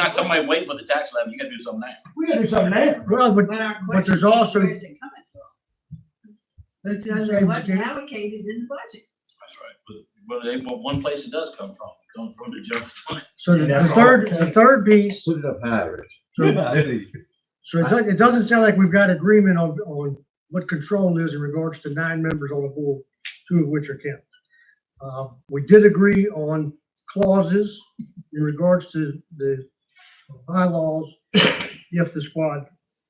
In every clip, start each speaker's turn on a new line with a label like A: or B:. A: Not somebody waiting for the tax levy, you gotta do something now.
B: We gotta do something now.
C: Well, but,
D: But our
C: but there's
D: question is,
C: also-
D: Where's it coming from?
C: that's the
D: Because
C: same
D: it wasn't
C: thing.
D: allocated in the budget.
A: That's right. But, but they, but one place it does come from, it comes from the general fund.
C: so the the
B: That's all.
C: third, the third piece,
E: Put it up higher. Rich.
C: so so it doesn't, it doesn't sound like we've got agreement on, on what control is in regards to nine members on the board, two of which are Kent. Uh, we did agree on clauses in regards to the bylaws, if the squad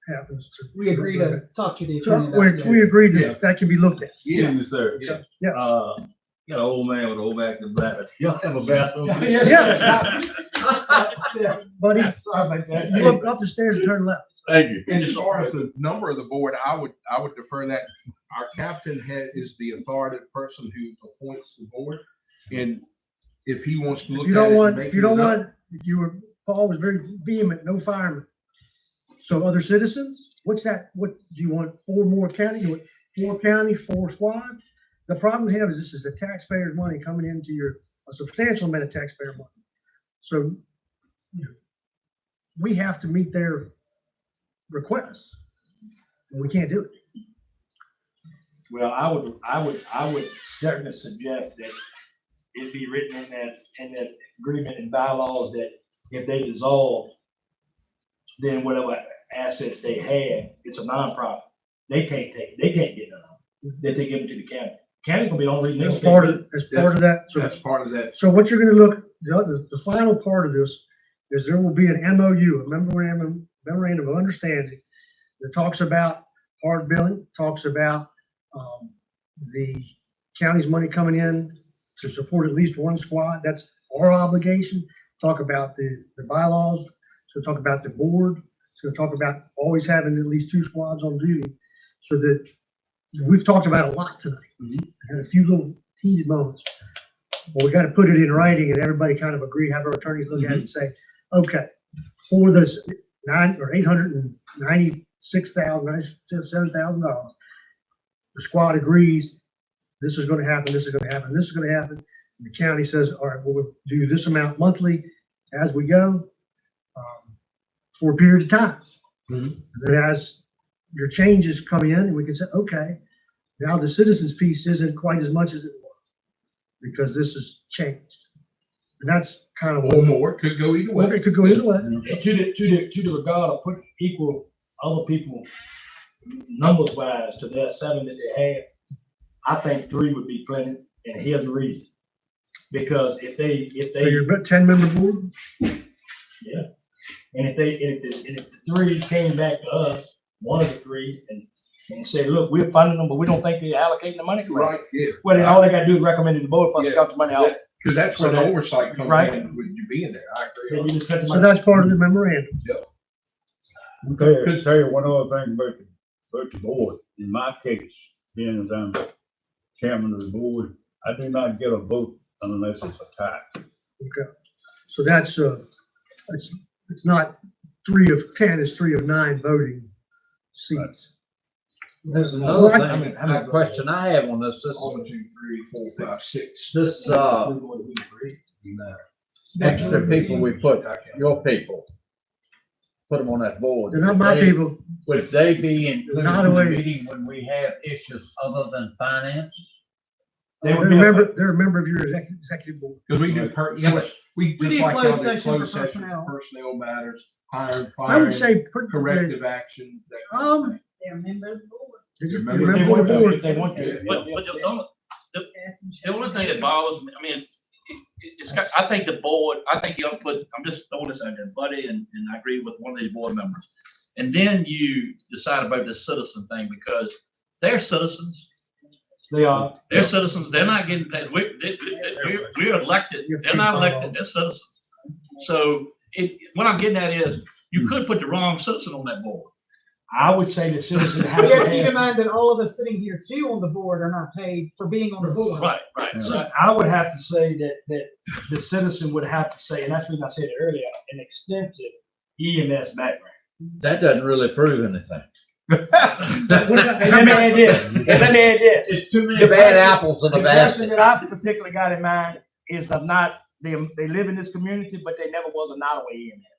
C: happens to.
F: We agree to talk to the attorney.
C: So
F: about
C: we,
F: this.
C: we agreed
E: Yeah.
C: that that can be looked at.
E: Yes, sir. Yeah.
C: Yeah.
E: Uh, you got an old man with an old back and bladder. Y'all have a bathroom.
B: Yes, sir. Yeah,
C: Buddy,
B: Sorry about that.
C: you look up the stairs and turn left.
E: Thank you.
G: And as far as the number of the board, I would, I would defer that. Our captain head is the authoritative person who appoints the board. And if he wants to look
C: If
G: at it.
C: you don't
G: and
C: want,
G: make
C: if you don't
G: it up-
C: want, if you were, Paul was very vehement, no firemen. So other citizens, what's that, what, do you want four more county, you want four county, four squad? The problem we have is this is the taxpayers' money coming into your, a substantial amount of taxpayer money. So, you know, we have to meet their requests. And we can't do it.
B: Well, I would, I would, I would certainly suggest that it be written in that, in that agreement and bylaws that if they dissolve, then whatever assets they had, it's a nonprofit. They can't take, they can't get none. of it. That they give it to the county. County gonna be the only.
C: That's part of, that's part of that. So
G: That's part of that.
C: So what you're gonna look, the, other- the final part of this is there will be an MOU, a memorandum, memorandum of understanding that talks about hard billing, talks about, um, the county's money coming in to support at least one squad. That's our obligation. Talk about the, the bylaws, so talk about the board, so talk about always having at least two squads on duty. So that, we've talked about a lot tonight. Had a few little heated moments. Well, we gotta put it in writing and everybody kind of agree, have our attorneys look at it and say, okay, for this nine or eight hundred and ninety-six thousand, ninety-seven thousand dollars, the squad agrees, this is gonna happen, this is gonna happen, this is gonna happen. The county says, all right, well, we'll do this amount monthly as we go, um, for a period of time.
G: Mhm.
C: And Then as your changes come in, and we can say, okay, now the citizens piece isn't quite as much as it was, because this has changed. And that's kind of
G: Or
C: what,
G: more, could go either way.
C: it could go either way.
B: And to the, to the, to the regard of putting equal other people numbers wise to their seven that they have, I think three would be plenty, and here's the reason. Because if they, if
C: So
B: they,
C: you're about ten member board,
B: and if they, and if, the- and if the three came back to us, one of the three, and, and say, look, we're funding them, but we don't think they're allocating the money correctly.
G: Right, yeah.
B: Well, then all they gotta do is recommend it to the board for us to
G: Yeah.
B: cut the money out,
G: Cause that's where the
B: So that-
G: oversight comes
B: right.
G: in, with you being there. I
B: then
G: agree.
B: you just cut the
C: so
B: money.
C: that's part of the memorandum.
E: Okay,
G: Because-
E: tell you one other thing about the, about the board. In my case, being as I'm chairman of the board, I do not get a vote unless it's a tie.
C: Okay, so that's, uh, it's, it's not three of ten, it's three of nine voting seats.
E: There's another
C: Well, I-
E: thing, a question I have on this, this,
G: One, two, three, four, five, six.
E: this, uh,
G: No.
E: extra people we put, your people. Put them on that board.
C: They're not my
E: They-
C: people,
E: Would they be included
C: Not
E: in the
C: aware.
E: meeting when we have issues other than finance?
B: They
C: they're
B: would
C: a
B: be a-
C: member, they're a member of your executive, executive board.
G: Cause we do per, yeah, but we,
F: We
G: just
F: need
G: like
F: closed
G: y'all do
F: session for
G: closed session,
F: personnel.
G: personnel matters, hiring,
C: I would
G: firing,
C: say. put-
G: corrective action. that kind of
C: Um,
D: They're a member of the board.
C: they're just-
G: Remember-
C: they're
B: If
C: a
B: they
C: member of
B: want
C: the
B: to,
C: board.
B: if they want to.
A: But, but the only, the only thing that
D: Bob.
A: bothers me, I mean, it- it- it's, got- I think the board, I think you ought to put, I'm just throwing this out there, Buddy, and, and I agree with one of these board members. And then you decide about the citizen thing, because they're citizens,
B: They are,
A: they're citizens, they're not getting paid, we, they, they- we're, we're elected, they're not elected, they're citizens. So, it, what I'm getting at is, you could put the wrong citizen on that board.
B: I would say the citizen have
F: We
B: to
F: have to keep
B: have.
F: in mind that all of us sitting here too on the board are not paid for being on the board.
A: Right, right, so
B: So I would have to say that, that the citizen would have to say, and that's what I said earlier, an extensive EMS background.
E: That doesn't really prove anything.
C: What about-
B: And let me add this, and let me add this.
E: It's too many bad apples in
B: The
E: a
B: person
E: basket.
B: that I particularly got in mind is of not, they, they live in this community, but they never was a E Nottaway EMS.